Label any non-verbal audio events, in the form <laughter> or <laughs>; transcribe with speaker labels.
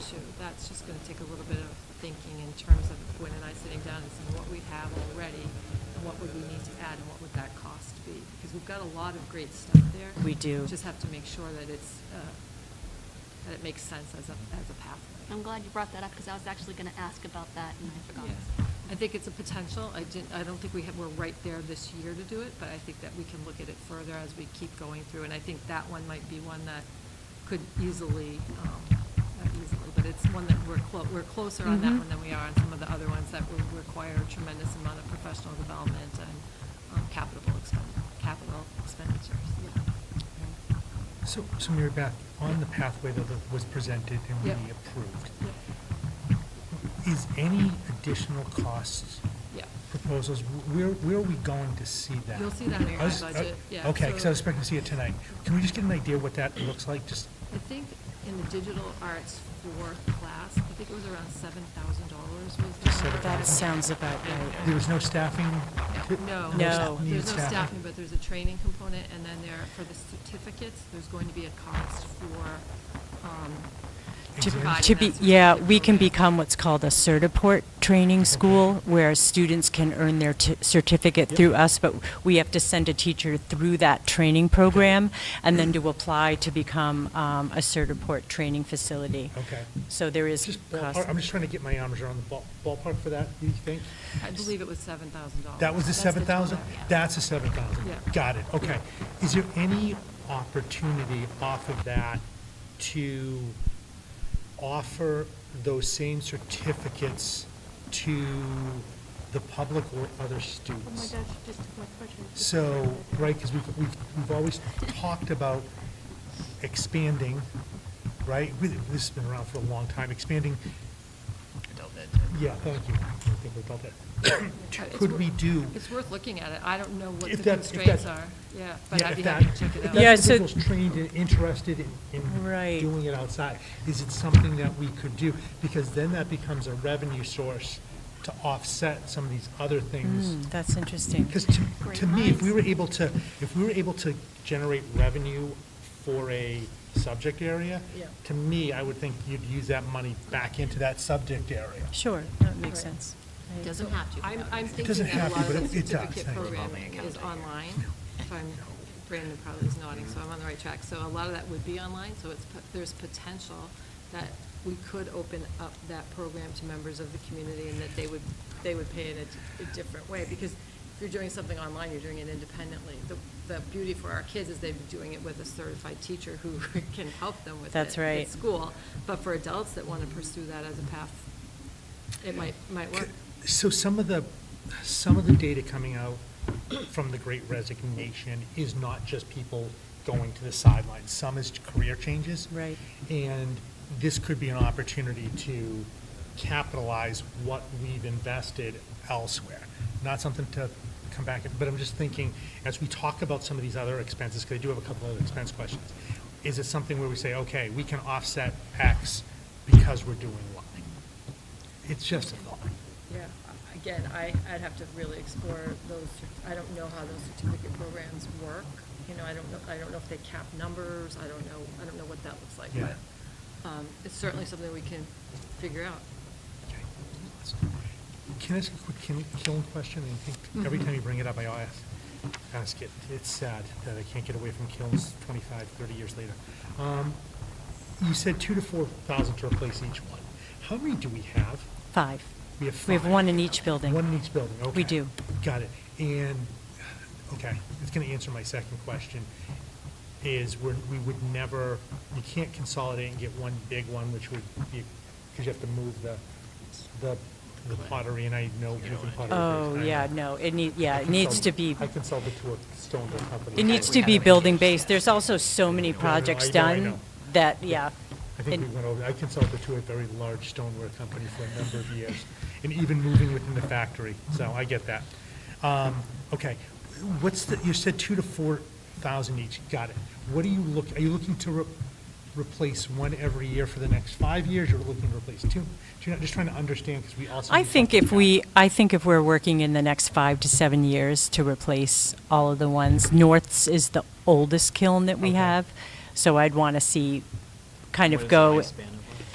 Speaker 1: too. That's just gonna take a little bit of thinking in terms of Gwen and I sitting down and seeing what we have already and what would we need to add and what would that cost be? Because we've got a lot of great stuff there.
Speaker 2: We do.
Speaker 1: Just have to make sure that it's, uh, that it makes sense as a, as a pathway.
Speaker 3: I'm glad you brought that up because I was actually going to ask about that and I forgot.
Speaker 1: Yes. I think it's a potential. I didn't, I don't think we have, we're right there this year to do it, but I think that we can look at it further as we keep going through. And I think that one might be one that could easily, um, not easily, but it's one that we're clo, we're closer on that
Speaker 2: Mhm.
Speaker 1: one than we are on some of the other ones that would require a tremendous amount of professional development and, um, capital expend, capital expenditures.
Speaker 4: So, so Mary Beth, on the pathway that was presented and we
Speaker 1: Yep.
Speaker 4: approved,
Speaker 1: Yeah.
Speaker 4: is any additional costs
Speaker 1: Yeah.
Speaker 4: proposals, where, where are we going to see that?
Speaker 1: You'll see that in your
Speaker 4: I was-
Speaker 1: budget, yeah,
Speaker 4: Okay, because I was
Speaker 1: so-
Speaker 4: expecting to see it tonight. Can we just get an idea what that looks like, just,
Speaker 1: I think in the digital arts for class, I think it was around seven thousand dollars was the
Speaker 4: Seven
Speaker 1: number.
Speaker 4: thousand.
Speaker 2: That sounds about
Speaker 4: there
Speaker 2: right.
Speaker 4: was no staffing?
Speaker 1: No.
Speaker 2: No.
Speaker 4: Needed
Speaker 1: There's no staffing,
Speaker 4: staffing?
Speaker 1: but there's a training component, and then there, for the certificates, there's going to be a cost for, um,
Speaker 2: To-
Speaker 1: providing
Speaker 2: To
Speaker 1: that
Speaker 2: be,
Speaker 1: certificate
Speaker 2: yeah, we can
Speaker 1: program.
Speaker 2: become what's called a Certiport training school, where students can earn their t- certificate
Speaker 4: Yep.
Speaker 2: through us, but we have to send a teacher through that training program, and then to apply to become um, a Certiport training facility.
Speaker 4: Okay.
Speaker 2: So there is
Speaker 4: Just
Speaker 2: cost.
Speaker 4: ballpark, I'm just trying to get my arms around the ball- ballpark for that, you think?
Speaker 1: I believe it was seven thousand dollars.
Speaker 4: That was the seven thousand? That's the seven thousand?
Speaker 1: Yeah.
Speaker 4: Got it, okay. Is there any opportunity off of that to offer those same certificates to the public or other students?
Speaker 3: Oh just a quick question.
Speaker 4: So, right, because we've, we've, we've always talked about expanding, right? We- This has been around for a long time, expanding,
Speaker 1: Adult ed.
Speaker 4: yeah, thank you. I think we've got that. Could we do?
Speaker 1: It's worth looking at it. I don't know what
Speaker 4: If
Speaker 1: the
Speaker 4: that- if
Speaker 1: constraints
Speaker 4: that-
Speaker 1: are, yeah, but
Speaker 4: Yeah,
Speaker 1: I'd
Speaker 4: if
Speaker 1: be
Speaker 4: that-
Speaker 1: happy to check it
Speaker 4: If
Speaker 1: out.
Speaker 4: that
Speaker 2: Yeah, so-
Speaker 4: individual's trained and interested in, in
Speaker 2: Right.
Speaker 4: doing it outside, is it something that we could do? Because then that becomes a revenue source to offset some of these other things.
Speaker 2: Mm, That's interesting.
Speaker 4: Because to, to
Speaker 3: Great
Speaker 4: me, if
Speaker 3: minds.
Speaker 4: we were able to, if we were able to generate revenue for a subject area,
Speaker 1: Yeah.
Speaker 4: to me, I would think you'd use that money back into that subject area.
Speaker 2: Sure, that
Speaker 1: Right.
Speaker 2: makes sense. I-
Speaker 5: Doesn't have to.
Speaker 1: I'm, I'm thinking
Speaker 4: Doesn't
Speaker 1: that
Speaker 4: have
Speaker 1: a
Speaker 4: to,
Speaker 1: lot
Speaker 4: but
Speaker 1: of the
Speaker 4: it- it does,
Speaker 1: certificate
Speaker 4: thank you.
Speaker 1: program
Speaker 5: Revolving account
Speaker 1: is
Speaker 5: idea.
Speaker 1: online. If I'm, Brandon probably is nodding, so I'm on the right track. So a lot of that would be online, so it's, po- there's potential that we could open up that program to members of the community and that they would, they would pay in a, a different way. Because if you're doing something online, you're doing it independently. The, the beauty for our kids is they'd be doing it with a certified teacher who <laughs> can help them with it.
Speaker 2: That's right.
Speaker 1: At school. But for adults that want to pursue that as a path, it might, might work.
Speaker 4: So some of the, some of the data coming out from the great resignation is not just people going to the sidelines. Some is career changes.
Speaker 2: Right.
Speaker 4: And this could be an opportunity to capitalize what we've invested elsewhere. Not something to come back, but I'm just thinking, as we talk about some of these other expenses, because I do have a couple of expense questions, is it something where we say, okay, we can offset X because we're doing Y? It's just a thought.
Speaker 1: Yeah, again, I, I'd have to really explore those, cer- I don't know how those certificate programs work. You know, I don't know, I don't know if they cap numbers, I don't know, I don't know what that looks like,
Speaker 4: Yeah.
Speaker 1: but, um, it's certainly something we can figure out.
Speaker 4: Okay. Can I ask a quick Kin- Killen question? I think every time you bring it up, I always ask it. It's sad that I can't get away from Killen's 25, 30 years later. Um, You said two to 4,000 to replace each one. How many do we have?
Speaker 2: Five.
Speaker 4: We have
Speaker 2: We have
Speaker 4: five.
Speaker 2: one in each building.
Speaker 4: One in each building, okay.
Speaker 2: We do.
Speaker 4: Got it. And, okay, it's going to answer my second question, is we're, we would never, you can't consolidate and get one big one, which would be, because you have to move the, the the pottery, and I know moving pottery.
Speaker 2: Oh,
Speaker 4: I
Speaker 2: yeah,
Speaker 4: know.
Speaker 2: no, it need, yeah,
Speaker 4: I
Speaker 2: it needs to
Speaker 4: consulted-
Speaker 2: be,
Speaker 4: I consulted to a stone mill company.
Speaker 2: it needs
Speaker 4: I-
Speaker 2: to be building-based. There's also so many
Speaker 4: no, I
Speaker 2: projects
Speaker 4: know, I
Speaker 2: done
Speaker 4: know.
Speaker 2: that, yeah.
Speaker 4: I think
Speaker 2: and-
Speaker 4: we went over, I consulted to a very large stoneware company for a number of years, and even moving within the factory, so I get that. Um, Okay, what's the, you said two to four thousand each, got it. What are you look, are you looking to re- replace one every year for the next five years, or looking to replace two? Do you know, Just trying to understand, because we also.
Speaker 2: I
Speaker 4: need
Speaker 2: think
Speaker 4: help
Speaker 2: if
Speaker 4: with
Speaker 2: we,
Speaker 4: that.
Speaker 2: I think if we're working in the next five to seven years to replace all of the ones, North's is the oldest kiln that we
Speaker 4: Okay.
Speaker 2: have, so I'd want to see kind of
Speaker 5: What is the
Speaker 2: go.
Speaker 5: lifespan